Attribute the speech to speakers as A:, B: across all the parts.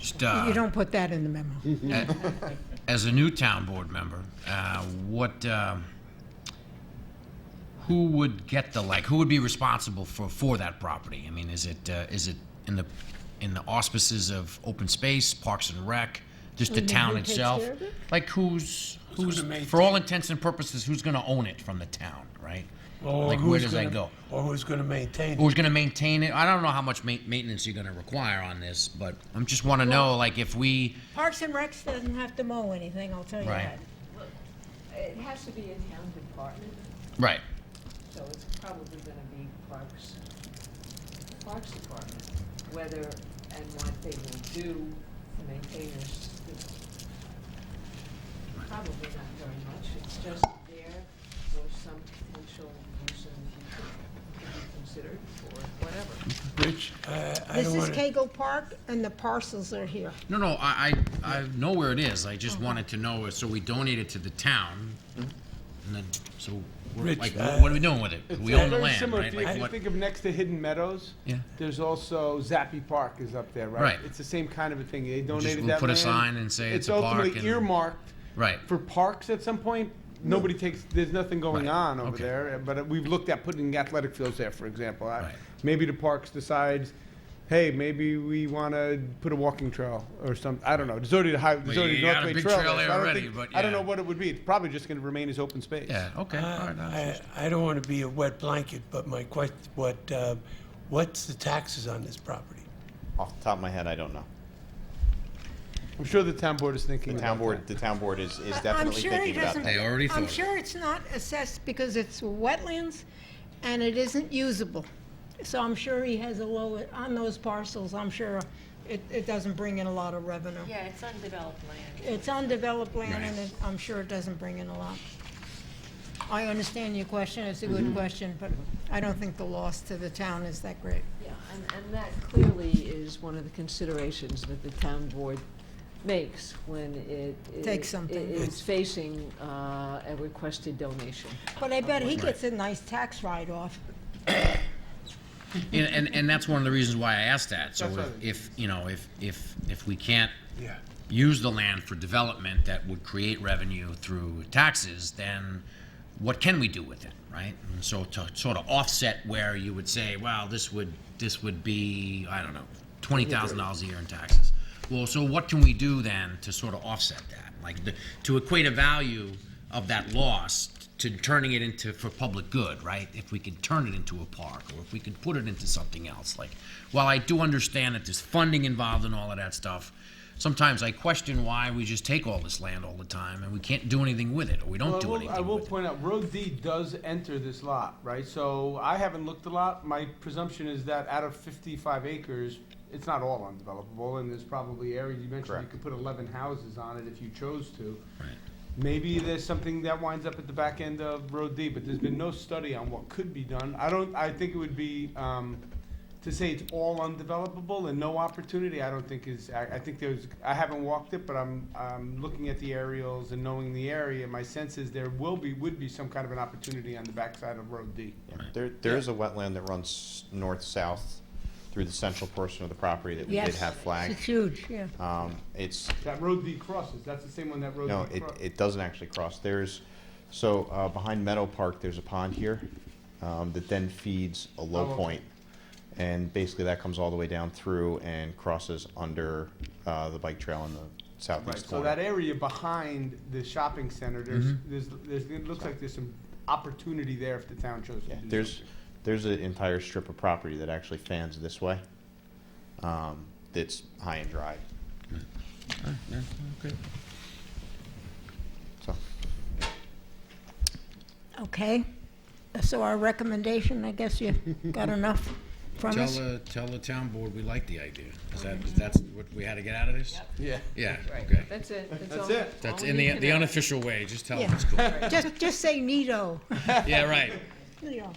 A: just, uh,
B: You don't put that in the memo.
A: as a new town board member, uh, what, um, who would get the, like, who would be responsible for, for that property? I mean, is it, uh, is it in the, in the auspices of open space, parks and rec, just the
B: mean,
A: town
B: who takes
A: itself?
B: care of it?
A: Like, who's, who's, for all intents and purposes, who's gonna own it from the town, right?
C: Or
A: Like, where
C: who's
A: does that
C: gonna-
A: go?
C: Or who's gonna maintain it?
A: Who's gonna maintain it? I don't know how much ma- maintenance you're gonna require on this, but I'm just wanna know, like, if we,
B: Parks and Recs doesn't have to mow anything, I'll tell you
A: Right.
B: that.
D: It has to be a town department,
A: right,
D: so it's probably gonna be Parks, Parks Department. Whether and what they will do to maintain this, it's probably not very much. It's just there for some potential use in the future, to be considered for whatever.
C: Rich, I, I
B: This
C: don't
B: is
C: wanna,
B: Cagle Park, and the parcels are here.
A: No, no, I, I, I know where it is, I just wanted to know, so we donate it to the town, and then, so, we're
C: Rich,
A: like,
C: uh,
A: what what are we doing with it?
E: It's
A: We own the
E: very
A: land,
E: similar.
A: right?
E: If you, if
A: Like
E: you
A: what-
E: think of next to Hidden Meadows,
A: Yeah.
E: there's also Zappy Park is up there, right?
A: Right.
E: It's the same kind of a thing. They donated
A: Just, we'll
E: that
A: put a
E: land.
A: sign and say it's
E: it's
A: a
E: ultimately
A: park and,
E: earmarked
A: right,
E: for parks at some point. Nobody takes. There's nothing going
A: Right.
E: on over
A: Okay.
E: there. But we've looked at putting athletic fields there, for example. I-
A: Right.
E: Maybe the parks decides. Hey, maybe we want to put a walking trail or something. I don't know. There's already the high, there's
A: you
E: already
A: got a
E: Northway
A: big
E: trail.
A: trail there
E: there, so I don't
A: already,
E: think-
A: but
E: I don't know
A: yeah.
E: what it would be. It's probably just going to remain as open space.
A: yeah, okay, all right. that's-
C: I, I don't wanna be a wet blanket, but my question, what, uh, what's the taxes on this property?
F: Off the top of my head, I don't know.
E: I'm sure the town board is thinking.
F: The
E: about
F: town
E: that.
F: board, the town board is, is
B: I- I'm
F: definitely
B: sure he
F: thinking about
B: doesn't-
F: that.
A: They already thought
B: I'm
A: of it.
B: sure it's not assessed because it's wetlands and it isn't usable. So I'm sure he has a low, on those parcels, I'm sure it, it doesn't bring in a lot of revenue.
G: Yeah, it's undeveloped land.
B: It's undeveloped land and it- I'm sure it doesn't bring in a lot. I understand your question, it's a
F: Mm-hmm.
B: good question, but I don't think the loss to the town is that great.
D: Yeah, and, and that clearly is one of the considerations that the town board makes when it. it-
B: Takes something.
D: it Is facing, uh, a requested donation.
B: But I bet he gets a nice tax write-off.
A: And, and, and that's one of the reasons why I asked that, so
E: That's
A: if,
E: right.
A: if, you know, if, if, if we can't
C: Yeah.
A: use the land for development that would create revenue through taxes, then what can we do with it, right? And so to sort of offset where you would say, well, this would, this would be, I don't know, twenty thousand dollars a year in taxes. Well, so what can we do then to sort of offset that? Like, the- to equate a value of that loss to turning it into, for public good, right? If we could turn it into a park, or if we could put it into something else, like, while I do understand that there's funding involved and all of that stuff, sometimes I question why we just take all this land all the time and we can't do anything with it, or we don't
E: Well, I
A: do
E: will- I
A: anything
E: will
A: with it.
E: point out, Road D does enter this lot, right? So I haven't looked a lot. My presumption is that out of fifty-five acres, it's not all undevelopable, and there's probably areas, you mentioned you
F: Correct.
E: could put eleven houses on it if you chose to.
A: Right.
E: Maybe there's something that winds up at the back end of Road D, but there's been no study on what could be done. I don't, I think it would be, um, to say it's all undevelopable and no opportunity, I don't think is, I, I think there's, I haven't walked it, but I'm, I'm looking at the aerials and knowing the area, my sense is there will be, would be some kind of an opportunity on the backside of Road D.
F: Yeah. There, there is a wetland that runs north-south through the central portion of the proproperty that we did have flagged.
B: It's huge, yeah.
F: Um, it's,
E: That Road D crosses, that's the same one that Road
F: no,
E: D
F: it,
E: crosses.
F: it doesn't actually cross. There's, so, uh, behind Meadow Park, there's a pond here, um, that then feeds a
E: Oh,
F: low
E: okay.
F: point. And basically that comes all the way down through and crosses under, uh, the bike trail in the
E: Right,
F: southeast
E: so
F: corner. Mm-hmm.
E: that area behind the shopping center, there's, there's, there's, it looks like there's some opportunity there if the town chose to
F: Yeah,
E: do
F: there's,
E: something.
F: there's an entire strip of property that actually fans this way. Um, that's high and dry. So,
B: Okay, so our recommendation, I guess you got enough from
A: Tell
B: us?
A: the, tell the town board we like the idea. Is that, is that's what we had to get out of this?
E: Yeah.
A: Yeah, okay.
D: That's it.
E: That's
D: all-
E: it.
A: That's
D: all
A: in
D: we
A: the,
D: can
A: the
D: add.
A: unofficial way, just tell them
B: Yeah.
A: it's cool.
B: Just, just say Nito.
A: Yeah, right.
B: Nito,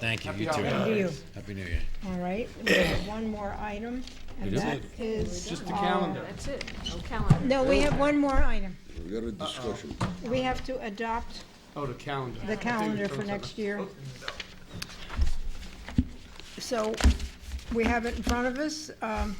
A: Thank you, you
E: Happy
A: too.
B: to you.
A: Happy New Year.
B: All right, we have one more item, and that is.
E: Just the
B: our-
E: calendar.
D: That's it, no calendar.
B: No, we have one more item.
H: We got a discussion.
B: We have to adopt
E: Oh, the calendar.
B: the calendar for next year. So, we have it in front of us. Um,